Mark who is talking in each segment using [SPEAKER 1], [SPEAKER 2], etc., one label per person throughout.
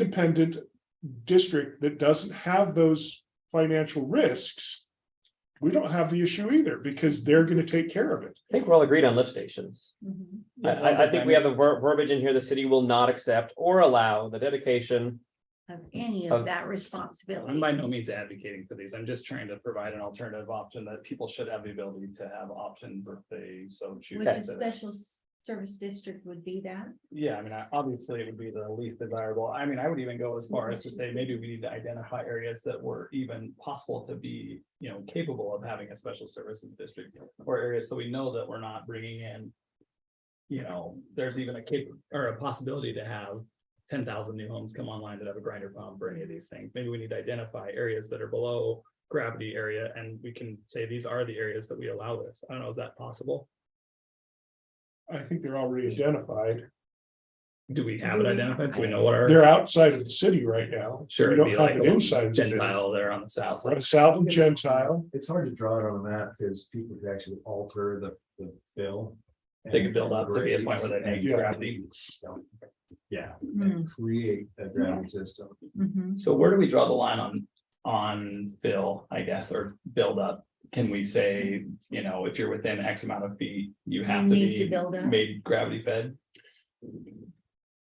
[SPEAKER 1] independent district that doesn't have those financial risks, we don't have the issue either because they're gonna take care of it.
[SPEAKER 2] I think we're all agreed on lift stations.
[SPEAKER 3] Mhm.
[SPEAKER 2] I, I, I think we have the ver- verbiage in here, the city will not accept or allow the dedication.
[SPEAKER 3] Of any
[SPEAKER 2] Of-
[SPEAKER 3] of that
[SPEAKER 4] I'm
[SPEAKER 3] responsibility.
[SPEAKER 4] by no means advocating for these. I'm just trying to provide an alternative option that people should have the ability to have options if they so choose.
[SPEAKER 3] Which a
[SPEAKER 4] to-
[SPEAKER 3] special s- service district would be that.
[SPEAKER 4] Yeah, I mean, I- obviously it would be the least desirable. I mean, I would even go as far as to say, maybe we need to identify areas that were even possible to be, you know, capable of having a special services district. Or areas so we know that we're not bringing in, you know, there's even a cap, or a possibility to have ten thousand new homes come online that have a grinder pump or any of these things. Maybe we need to identify areas that are below gravity area and we can say these are the areas that we allow this. I don't know, is that possible?
[SPEAKER 1] I think they're already identified.
[SPEAKER 4] Do we have it identified? So we know what our.
[SPEAKER 1] They're outside of the city right now.
[SPEAKER 4] Sure,
[SPEAKER 1] We
[SPEAKER 4] it'd
[SPEAKER 1] don't
[SPEAKER 4] be
[SPEAKER 1] have
[SPEAKER 4] like
[SPEAKER 1] it
[SPEAKER 4] a
[SPEAKER 1] inside. the city.
[SPEAKER 4] Gentile there on the south
[SPEAKER 1] Right,
[SPEAKER 4] side.
[SPEAKER 1] South and Gentile.
[SPEAKER 5] It's hard to draw it on that because people could actually alter the, the bill.
[SPEAKER 4] They could build up to be a point where they
[SPEAKER 5] and-
[SPEAKER 1] make
[SPEAKER 4] gravity.
[SPEAKER 5] Yeah, and create a gravity system.
[SPEAKER 3] Mhm.
[SPEAKER 4] So where do we draw the line on, on fill, I guess, or build up? Can we say, you know, if you're within X amount of feet, you have to
[SPEAKER 3] Need to
[SPEAKER 4] be
[SPEAKER 3] build up.
[SPEAKER 4] made gravity fed?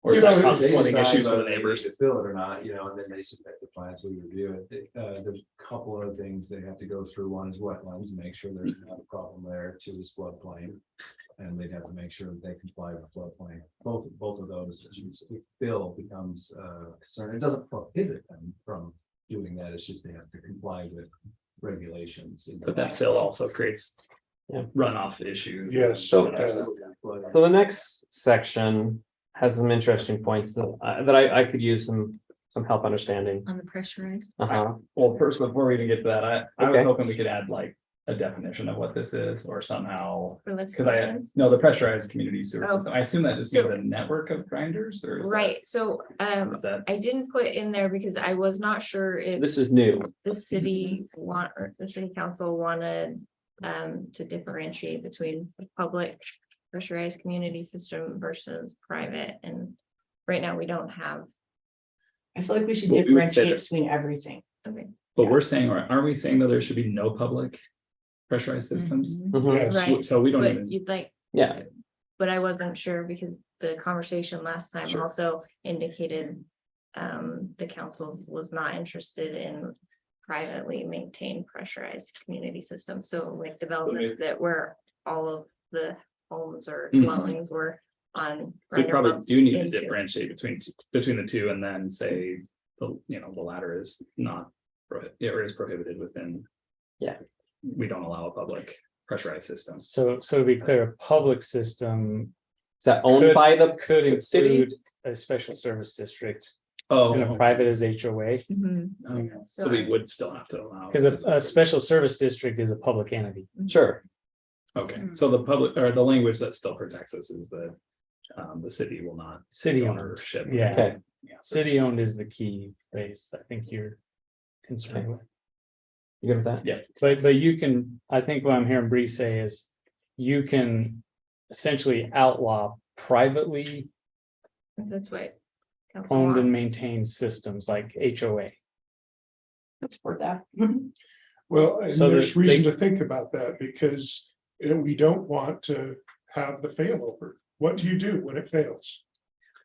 [SPEAKER 4] Or is that
[SPEAKER 5] They
[SPEAKER 4] causing
[SPEAKER 5] decide
[SPEAKER 4] issues for
[SPEAKER 5] whether
[SPEAKER 4] the
[SPEAKER 5] they need
[SPEAKER 4] neighbors?
[SPEAKER 5] to Fill it or not, you know, and then they submit the plans, we review it. Uh, there's a couple other things they have to go through. One is wetlands, make sure there's not a problem there. Two is floodplain. And they'd have to make sure that they comply with floodplain. Both, both of those issues, if bill becomes uh, a concern, it doesn't prohibit them from doing that. It's just they have to comply with regulations.
[SPEAKER 4] But that fill also creates
[SPEAKER 2] Yeah.
[SPEAKER 4] runoff issues.
[SPEAKER 1] Yes.
[SPEAKER 2] So,
[SPEAKER 1] uh,
[SPEAKER 2] So the next section has some interesting points that, I- that I, I could use some, some help understanding.
[SPEAKER 3] On the pressurized.
[SPEAKER 2] Uh-huh,
[SPEAKER 4] Well, first, before we even get to that, I, I was
[SPEAKER 2] Okay.
[SPEAKER 4] hoping we could add like a definition of what this is or somehow
[SPEAKER 3] for lift
[SPEAKER 4] Cause I,
[SPEAKER 3] stations?
[SPEAKER 4] no, the pressurized community sewer
[SPEAKER 6] Oh.
[SPEAKER 4] system, I assume that just means
[SPEAKER 6] So-
[SPEAKER 4] a network of grinders or is that-
[SPEAKER 6] Right, so um,
[SPEAKER 4] Is that,
[SPEAKER 6] I didn't put in there because I was not sure if
[SPEAKER 2] this is new.
[SPEAKER 6] the city want, or the city council wanted. Um, to differentiate between the public pressurized community system versus private and. Right now, we don't have,
[SPEAKER 7] I feel like we should
[SPEAKER 4] Well, we would say
[SPEAKER 7] differentiate
[SPEAKER 4] that-
[SPEAKER 7] between everything.
[SPEAKER 6] okay,
[SPEAKER 4] but we're saying, or aren't we saying that there should be no public pressurized systems?
[SPEAKER 3] Mhm.
[SPEAKER 2] Mhm,
[SPEAKER 1] Yes,
[SPEAKER 6] Mm-hmm. Right.
[SPEAKER 4] So we don't
[SPEAKER 6] but
[SPEAKER 4] even,
[SPEAKER 6] you'd like,
[SPEAKER 2] Yeah,
[SPEAKER 6] but I wasn't sure because the conversation last time
[SPEAKER 4] Sure.
[SPEAKER 6] also indicated. Um, the council was not interested in privately maintained pressurized community systems, so like developments that were all of the homes or
[SPEAKER 4] Mhm.
[SPEAKER 6] dwellings were on.
[SPEAKER 4] so we
[SPEAKER 6] grinder
[SPEAKER 4] probably
[SPEAKER 6] pumps
[SPEAKER 4] do need to
[SPEAKER 6] into-
[SPEAKER 4] differentiate between, between the two and then say, the, you know, the latter is not. prohi- Or is prohibited within.
[SPEAKER 2] Yeah.
[SPEAKER 4] We don't allow a public pressurized system.
[SPEAKER 8] So, so to be clear, a public system
[SPEAKER 2] is that owned
[SPEAKER 8] Could-
[SPEAKER 2] by the
[SPEAKER 8] could
[SPEAKER 2] city?
[SPEAKER 8] include a special service district
[SPEAKER 4] Oh,
[SPEAKER 8] and a private is HOA.
[SPEAKER 3] Mm-hmm.
[SPEAKER 6] Mhm.
[SPEAKER 4] okay. so we would still have to allow.
[SPEAKER 8] Because a, a special service district is a public entity.
[SPEAKER 2] Sure,
[SPEAKER 4] Okay, so the public, or the language that still protects us is that. Um, the city will not
[SPEAKER 8] City owned,
[SPEAKER 4] ownership.
[SPEAKER 8] yeah.
[SPEAKER 2] okay,
[SPEAKER 4] Yeah.
[SPEAKER 8] City owned is the key phrase I think you're concerned with.
[SPEAKER 2] you good with that?
[SPEAKER 8] But, but you can, I think what I'm hearing Bree say is you can essentially outlaw privately
[SPEAKER 6] That's what. council
[SPEAKER 8] owned and
[SPEAKER 6] wants.
[SPEAKER 8] maintained systems like HOA.
[SPEAKER 7] Support that.
[SPEAKER 1] Well, and
[SPEAKER 8] So
[SPEAKER 1] there's
[SPEAKER 8] that they-
[SPEAKER 1] reason to think about that because uh, we don't want to have the failover. What do you do when it fails?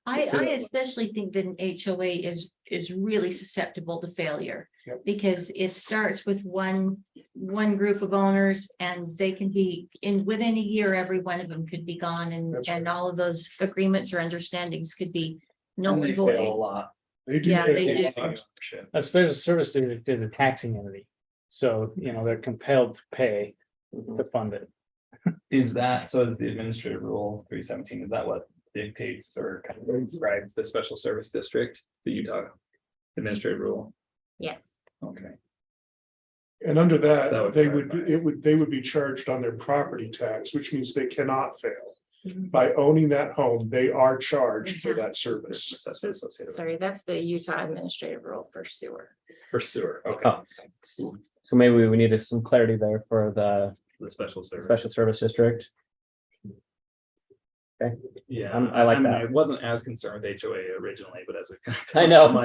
[SPEAKER 3] I,
[SPEAKER 4] So-
[SPEAKER 3] I especially think that an HOA is, is really susceptible to failure.
[SPEAKER 1] Yep.
[SPEAKER 3] Because it starts with one, one group of owners and they can be, in within a year, every one of them could be gone and,
[SPEAKER 1] That's
[SPEAKER 3] and all of those agreements or understandings could be null
[SPEAKER 4] And they
[SPEAKER 3] and
[SPEAKER 4] fail a
[SPEAKER 3] void.
[SPEAKER 4] lot.
[SPEAKER 1] They do.
[SPEAKER 3] Yeah, they
[SPEAKER 1] fail.
[SPEAKER 3] do.
[SPEAKER 4] Ownership.
[SPEAKER 8] A special service district is a taxing entity. So, you know, they're compelled to pay
[SPEAKER 2] Mm-hmm.
[SPEAKER 8] to fund it.
[SPEAKER 4] Is that, so is the administrative rule three seventeen, is that what dictates or kind of describes the special service district, the Utah administrative rule?
[SPEAKER 6] Yes.
[SPEAKER 4] Okay,
[SPEAKER 1] And under
[SPEAKER 4] That
[SPEAKER 1] that,
[SPEAKER 4] would
[SPEAKER 1] they would,
[SPEAKER 4] clarify.
[SPEAKER 1] it would, they would be charged on their property tax, which means they cannot fail.
[SPEAKER 6] Mhm.
[SPEAKER 1] By owning that home, they are charged for
[SPEAKER 6] Mhm.
[SPEAKER 1] that service.
[SPEAKER 4] there's assessment associated with
[SPEAKER 6] Sorry, that's the Utah administrative rule for sewer.
[SPEAKER 4] for sewer, okay.
[SPEAKER 2] Oh. So maybe we needed some clarity there for the
[SPEAKER 4] The special service.
[SPEAKER 2] special service district. Okay.
[SPEAKER 4] Yeah,
[SPEAKER 2] I'm- I like
[SPEAKER 4] mean,
[SPEAKER 2] that.
[SPEAKER 4] I wasn't as concerned with HOA originally, but as we. kind of
[SPEAKER 2] I know.
[SPEAKER 4] talked, I'm like,